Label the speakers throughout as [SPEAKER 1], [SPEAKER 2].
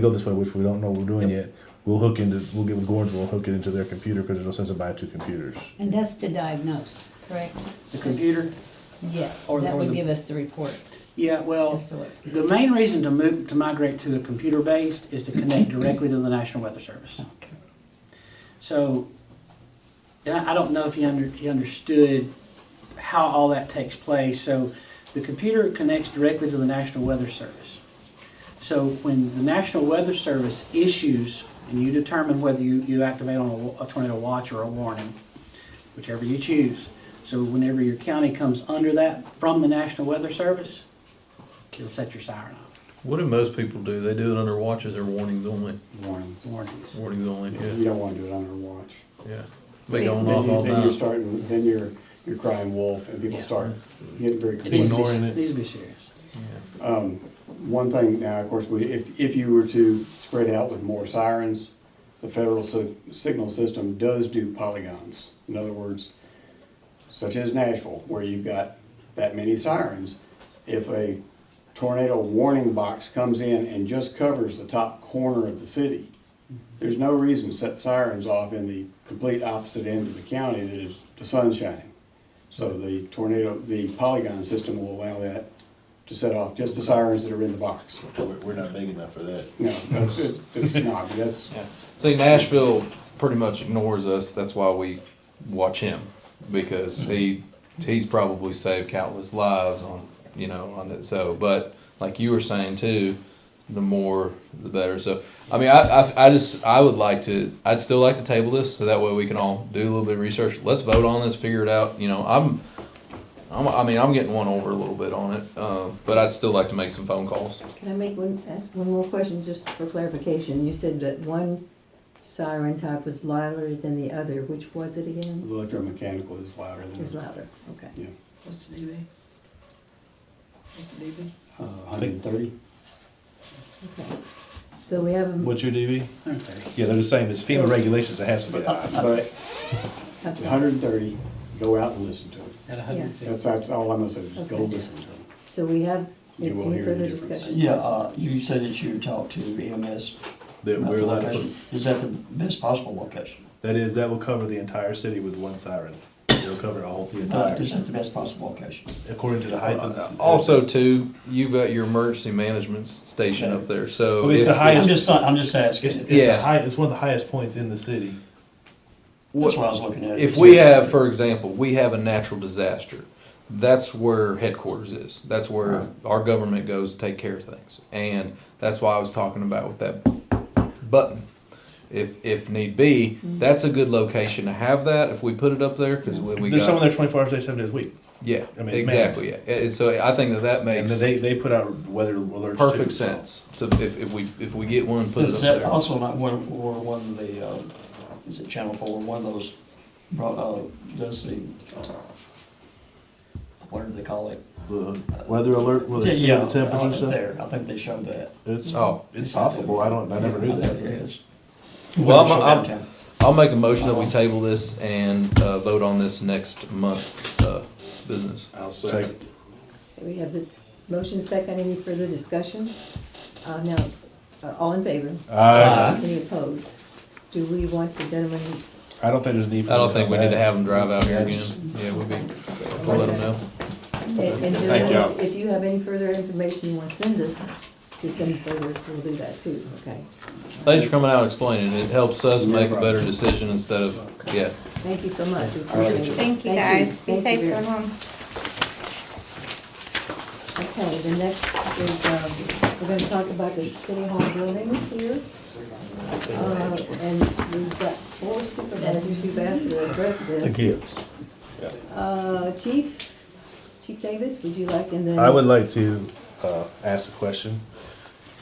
[SPEAKER 1] we go this way, which we don't know we're doing yet, we'll hook into, we'll get with Gorns, we'll hook it into their computer, because there's no sense in buying two computers.
[SPEAKER 2] And that's to diagnose, correct?
[SPEAKER 3] The computer?
[SPEAKER 2] Yeah,
[SPEAKER 3] Or-
[SPEAKER 2] that
[SPEAKER 3] or
[SPEAKER 2] would
[SPEAKER 3] the-
[SPEAKER 2] give us the report.
[SPEAKER 3] Yeah, well,
[SPEAKER 2] That's the way it's gonna
[SPEAKER 3] the main reason to move, to migrate to a computer-based is to connect directly to the National Weather Service. So, and I I don't know if you under, you understood how all that takes place. So the computer connects directly to the National Weather Service. So when the National Weather Service issues, and you determine whether you, you activate on a wa- a tornado watch or a warning, whichever you choose. So whenever your county comes under that from the National Weather Service, it'll set your siren off.
[SPEAKER 4] What do most people do? They do it under watches or warnings only.
[SPEAKER 5] warning.
[SPEAKER 3] Warnings.
[SPEAKER 4] Warnings only,
[SPEAKER 5] You
[SPEAKER 4] yeah,
[SPEAKER 5] don't wanna do it on our watch.
[SPEAKER 4] yeah. They go on
[SPEAKER 5] Then
[SPEAKER 4] off
[SPEAKER 5] you-
[SPEAKER 4] all
[SPEAKER 5] Then you're
[SPEAKER 4] the time.
[SPEAKER 5] starting, then you're, you're crying wolf and people
[SPEAKER 3] Yeah.
[SPEAKER 5] start getting very
[SPEAKER 3] It needs to be-
[SPEAKER 5] complacent.
[SPEAKER 1] Ignoring it.
[SPEAKER 3] Needs to be serious.
[SPEAKER 5] Um, one thing now, of course, we, if, if you were to spread out with more sirens, the federal si- signal system does do polygons. In other words, such as Nashville, where you've got that many sirens, if a tornado warning box comes in and just covers the top corner of the city, there's no reason to set sirens off in the complete opposite end of the county that is the sun shining. So the tornado, the polygon system will allow that to set off just the sirens that are in the box.
[SPEAKER 1] We're, we're not big enough for that.
[SPEAKER 5] No, that's, it's not, but that's,
[SPEAKER 6] Yeah. See, Nashville pretty much ignores us. That's why we watch him because he he's probably saved countless lives on you know on it. So, but like you were saying too, the more the better. So, I mean, I, I I just I would like to. I'd still like to table this so that way we can all do a little bit of research. Let's vote on this, figure it out. You know, I'm. I'm, I mean, I'm getting one over a little bit on it, um, but I'd still like to make some phone calls.
[SPEAKER 7] Can I make one, ask one more question, just for clarification? You said that one siren type was louder than the other, which was it
[SPEAKER 5] the
[SPEAKER 7] again?
[SPEAKER 5] electromechanical is louder than.
[SPEAKER 7] Is louder, okay.
[SPEAKER 5] Yeah,
[SPEAKER 8] What's the DB? What's the DB?
[SPEAKER 5] uh, hundred and thirty.
[SPEAKER 7] Okay. So we have, a
[SPEAKER 1] What's your DB?
[SPEAKER 3] Okay.
[SPEAKER 1] Yeah, they're the same, it's FEMA regulations, it has to be high.
[SPEAKER 5] But
[SPEAKER 7] I'm
[SPEAKER 5] the
[SPEAKER 7] sorry.
[SPEAKER 5] hundred and thirty, go out and listen to them.
[SPEAKER 3] At a hundred and fifty.
[SPEAKER 5] That's, that's all I'm gonna say, just go
[SPEAKER 7] Okay.
[SPEAKER 5] listen to them.
[SPEAKER 7] so we have
[SPEAKER 5] You will
[SPEAKER 7] any
[SPEAKER 5] hear the
[SPEAKER 7] further
[SPEAKER 5] difference.
[SPEAKER 7] discussion?
[SPEAKER 9] Yeah, uh, you said that you talked to EMS.
[SPEAKER 1] That
[SPEAKER 9] about
[SPEAKER 1] we're
[SPEAKER 9] the
[SPEAKER 1] allowed to
[SPEAKER 9] location. Is that the best possible location?
[SPEAKER 1] That is, that will cover the entire city with one siren. It'll cover all the
[SPEAKER 9] Uh,
[SPEAKER 1] entire,
[SPEAKER 9] Is that the best possible location?
[SPEAKER 1] according to the height of the.
[SPEAKER 6] Also, too, you've got your emergency management s- station up there, so.
[SPEAKER 1] Well, it's
[SPEAKER 6] if-
[SPEAKER 1] the highest-
[SPEAKER 9] I'm just, I'm just
[SPEAKER 1] It's,
[SPEAKER 9] asking.
[SPEAKER 1] it's the
[SPEAKER 6] Yeah.
[SPEAKER 1] high, it's one of the highest points in the city.
[SPEAKER 9] That's what I was looking at.
[SPEAKER 6] If we have, for example, we have a natural disaster, that's where headquarters is. That's where our government goes to take care of things. And that's why I was talking about with that button. If, if need be, that's a good location to have that if we put it up there, because when we
[SPEAKER 1] There's someone
[SPEAKER 6] got,
[SPEAKER 1] there twenty-four hours a day, seven days a week.
[SPEAKER 6] yeah,
[SPEAKER 1] I mean, it's
[SPEAKER 6] exactly, yeah. And so I think that that
[SPEAKER 1] And
[SPEAKER 6] makes
[SPEAKER 1] then they, they put out weather alerts.
[SPEAKER 6] perfect
[SPEAKER 1] too, so.
[SPEAKER 6] sense to, if, if we, if we get one, put it up
[SPEAKER 9] Is that
[SPEAKER 6] there.
[SPEAKER 9] also not one, or one of the, uh, is it Channel Four, one of those, bro- uh, does the, uh, what do they call it?
[SPEAKER 1] The weather alert, will they see
[SPEAKER 9] Yeah,
[SPEAKER 1] the temperature and
[SPEAKER 9] uh,
[SPEAKER 1] stuff?
[SPEAKER 9] There, I think they showed that.
[SPEAKER 1] It's,
[SPEAKER 6] Oh.
[SPEAKER 1] it's possible, I don't, I never
[SPEAKER 9] I
[SPEAKER 1] knew
[SPEAKER 9] think it
[SPEAKER 1] that.
[SPEAKER 9] is.
[SPEAKER 6] Well, I'm-
[SPEAKER 9] Show
[SPEAKER 6] I'm-
[SPEAKER 9] downtown.
[SPEAKER 6] I'll make a motion that we table this and uh, vote on this next month uh, business.
[SPEAKER 4] I'll
[SPEAKER 1] Second.
[SPEAKER 7] We have the motion second, any further discussion? Uh, now, uh, all in favor?
[SPEAKER 1] I,
[SPEAKER 7] Any opposed? Do we want the gentleman, eh,
[SPEAKER 1] I don't think there's a need for.
[SPEAKER 6] I don't
[SPEAKER 1] them
[SPEAKER 6] think we
[SPEAKER 1] come
[SPEAKER 6] need to
[SPEAKER 1] back.
[SPEAKER 6] have them drive out here again.
[SPEAKER 1] That's-
[SPEAKER 6] Yeah, we'll be, we'll let them know.
[SPEAKER 7] and, and do
[SPEAKER 1] Thank
[SPEAKER 7] those- if you have any further information you want to send us, to send further, we'll do that too, okay?
[SPEAKER 6] Thanks for coming out and explaining. It helps us
[SPEAKER 5] No
[SPEAKER 6] make a
[SPEAKER 5] problem.
[SPEAKER 6] better decision instead of, yeah.
[SPEAKER 7] Thank you so much. We
[SPEAKER 5] All right.
[SPEAKER 7] appreciate it.
[SPEAKER 10] Thank you, guys. Be
[SPEAKER 7] Thank
[SPEAKER 10] safe,
[SPEAKER 7] you
[SPEAKER 10] go
[SPEAKER 7] very much.
[SPEAKER 10] home.
[SPEAKER 7] Okay, the next is, um, we're gonna talk about the city hall building here. Uh, And we've got four supervisors who've asked to address this. Uh, Chief, Chief Davis, would you like, and then.
[SPEAKER 1] I would like to uh, ask a question.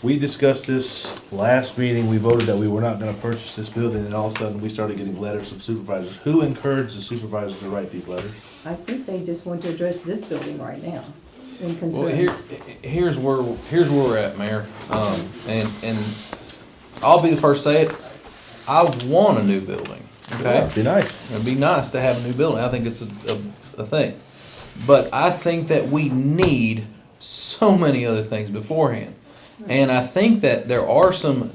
[SPEAKER 1] We discussed this last meeting, we voted that we were not gonna purchase this building, and all of a sudden, we started getting letters from supervisors. Who encouraged the supervisors to write these letters?
[SPEAKER 7] I think they just want to address this building right now in
[SPEAKER 6] Well, here,
[SPEAKER 7] concerns.
[SPEAKER 6] here's where, here's where we're at, Mayor. Um, and, and I'll be the first to say it. I want a new building, okay?
[SPEAKER 1] It'd Be nice.
[SPEAKER 6] It'd be nice to have a new building. I think it's a, a, a thing. But I think that we need so many other things beforehand. And I think that there are some